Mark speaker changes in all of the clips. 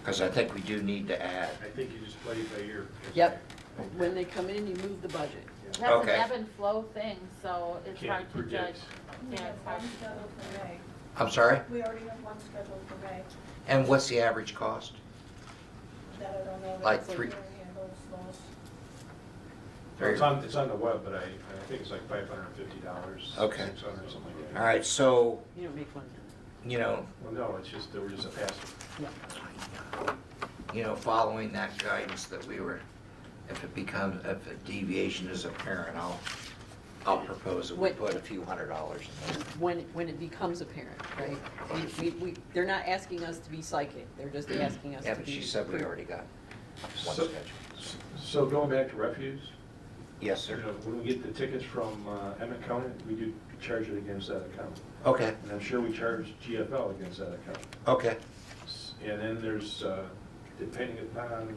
Speaker 1: Because I think we do need to add.
Speaker 2: I think you just play it by ear.
Speaker 3: Yep. When they come in, you move the budget.
Speaker 4: That's an
Speaker 1: Okay.
Speaker 4: ebb and flow thing, so it's
Speaker 2: Can't
Speaker 4: hard to judge.
Speaker 2: predict.
Speaker 5: We
Speaker 4: Yeah,
Speaker 5: have
Speaker 4: it's hard
Speaker 5: one
Speaker 4: to
Speaker 5: scheduled for May.
Speaker 1: I'm sorry?
Speaker 5: We already have one scheduled for May
Speaker 1: And what's the average cost?
Speaker 5: that I don't know.
Speaker 1: Like
Speaker 5: That's what
Speaker 1: three-
Speaker 5: Mary handles those.
Speaker 2: It's on, it's on the web, but I, I think it's like five hundred and fifty dollars.
Speaker 1: Okay.
Speaker 2: Six hundred, something like that.
Speaker 1: All right, so,
Speaker 3: You don't make one.
Speaker 1: you know,
Speaker 2: Well, no, it's just, they were just a pass.
Speaker 1: you know, following that guidance that we were, if it becomes, if a deviation is apparent, I'll, I'll propose that we
Speaker 3: What-
Speaker 1: put a few hundred dollars in there.
Speaker 3: When, when it becomes apparent, right? We, we, we- they're not asking us to be psychic, they're just asking us to
Speaker 1: Yeah,
Speaker 3: be.
Speaker 1: but she said we
Speaker 3: clear.
Speaker 1: already got one
Speaker 2: So-
Speaker 1: scheduled.
Speaker 2: So going back to refuse,
Speaker 1: Yes,
Speaker 2: you
Speaker 1: sir.
Speaker 2: know, when we get the tickets from uh, Emmett County, we do charge it against that account.
Speaker 1: Okay,
Speaker 2: And I'm sure we charge GFL against that account.
Speaker 1: okay.
Speaker 2: S- And then there's, uh, depending upon,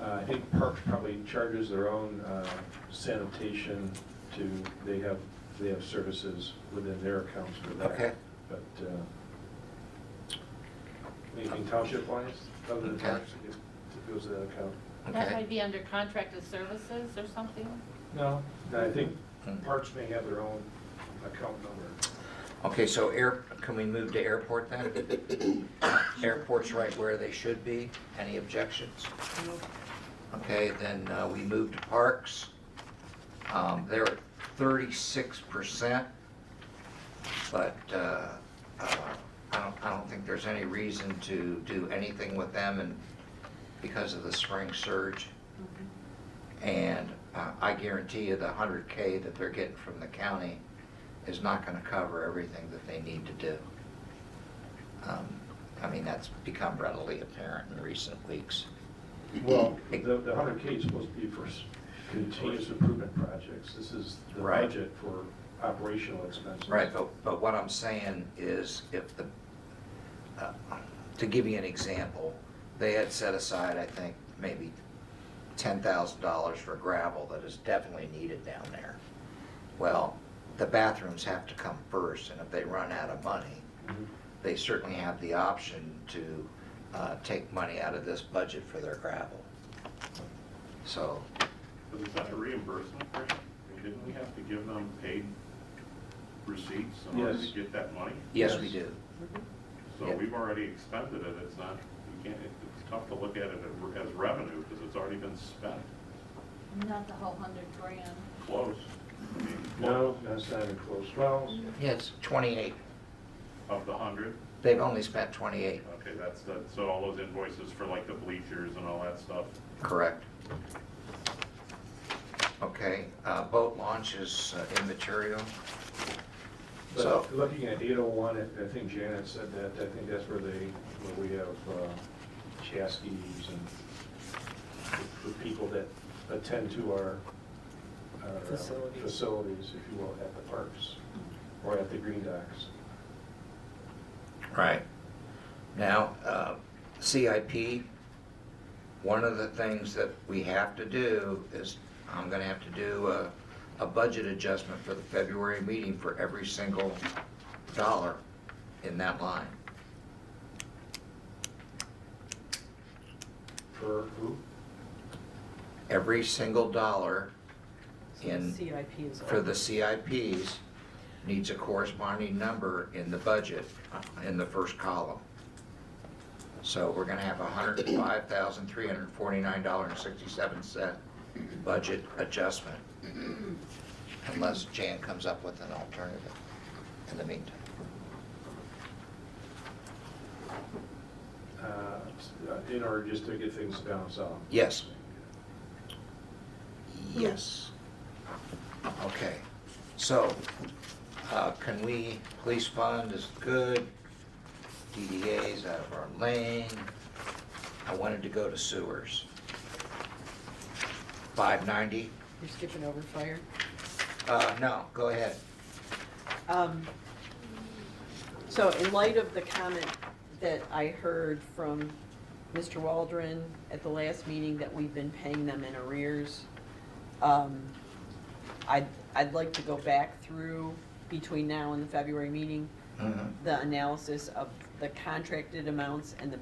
Speaker 2: uh, I think Parks probably charges their own uh, sanitation to, they have, they have services within their accounts for that.
Speaker 1: Okay.
Speaker 2: But, uh, anything township wise, other than
Speaker 1: Okay.
Speaker 2: parks, it it goes to that account?
Speaker 4: That
Speaker 1: Okay.
Speaker 4: might be under contracted services or something.
Speaker 2: No. I think
Speaker 1: Hmm.
Speaker 2: Parks may have their own account number.
Speaker 1: Okay, so air, can we move to airport then? Airport's right where they should be. Any objections? Okay, then uh, we move to parks. Um, They're at thirty-six percent, but uh, uh, I don't, I don't think there's any reason to do anything with them and because of the spring surge. And uh, I guarantee you the hundred K that they're getting from the county is not gonna cover everything that they need to do. Um, I mean, that's become readily apparent in recent weeks.
Speaker 2: Well, the, the hundred K is supposed to be for s- continuous improvement projects. This is the
Speaker 1: Right.
Speaker 2: budget for operational expenses.
Speaker 1: Right, but, but what I'm saying is if the, uh, to give you an example, they had set aside, I think, maybe ten thousand dollars for gravel that is definitely needed down there. Well, the bathrooms have to come first, and if they run out of money,
Speaker 2: Mhm.
Speaker 1: they certainly have the option to uh, take money out of this budget for their gravel. So,
Speaker 6: But is that a reimbursement, Grant? I mean, Didn't we have to give them paid receipts in order to
Speaker 2: Yes.
Speaker 6: get that money?
Speaker 1: yes, we
Speaker 2: Yes.
Speaker 1: do.
Speaker 6: So
Speaker 1: Yeah.
Speaker 6: we've already expended it, it's not, you can't, it- it's tough to look at it as revenue, because it's already been spent,
Speaker 4: Not the whole hundred grand.
Speaker 6: close. I mean,
Speaker 2: No, that's not even close. Well,
Speaker 1: Yes, twenty-eight,
Speaker 6: Of the hundred,
Speaker 1: they've only spent twenty-eight,
Speaker 6: okay, that's, the so all those invoices for like the bleachers and all that stuff,
Speaker 1: correct? Okay, uh, boat launch is uh, immaterial. So,
Speaker 2: but looking at eight oh one, I think Janet said that, I think that's where they, where we have uh, Chaskies and the- the people that attend to our our, uh,
Speaker 3: Facilities.
Speaker 2: facilities, if you will, at the parks or at the green docks.
Speaker 1: right. Now, uh, CIP, one of the things that we have to do is, I'm gonna have to do a, a budget adjustment for the February meeting for every single dollar in that line.
Speaker 2: For who?
Speaker 1: Every single dollar
Speaker 3: So the
Speaker 1: in.
Speaker 3: CIP is.
Speaker 1: for
Speaker 3: over.
Speaker 1: the CIPs needs a corresponding number in the budget, uh, in the first column. So we're gonna have hundred and five thousand, three hundred and forty-nine dollars and sixty-seven cent budget adjustment, unless Jan comes up with an alternative in the meantime.
Speaker 2: uh, in order just to get things balanced out.
Speaker 1: Yes. Yes. Okay, so, uh, can we, police fund is good, DDA's out of our lane. I wanted to go to sewers. Five ninety,
Speaker 3: You're skipping over fire.
Speaker 1: uh, no, go ahead.
Speaker 3: Um, So in light of the comment that I heard from Mr. Waldron at the last meeting that we've been paying them in arrears, um, I'd, I'd like to go back through between now and the February meeting,
Speaker 1: Mhm.
Speaker 3: the analysis of the the contracted amounts and the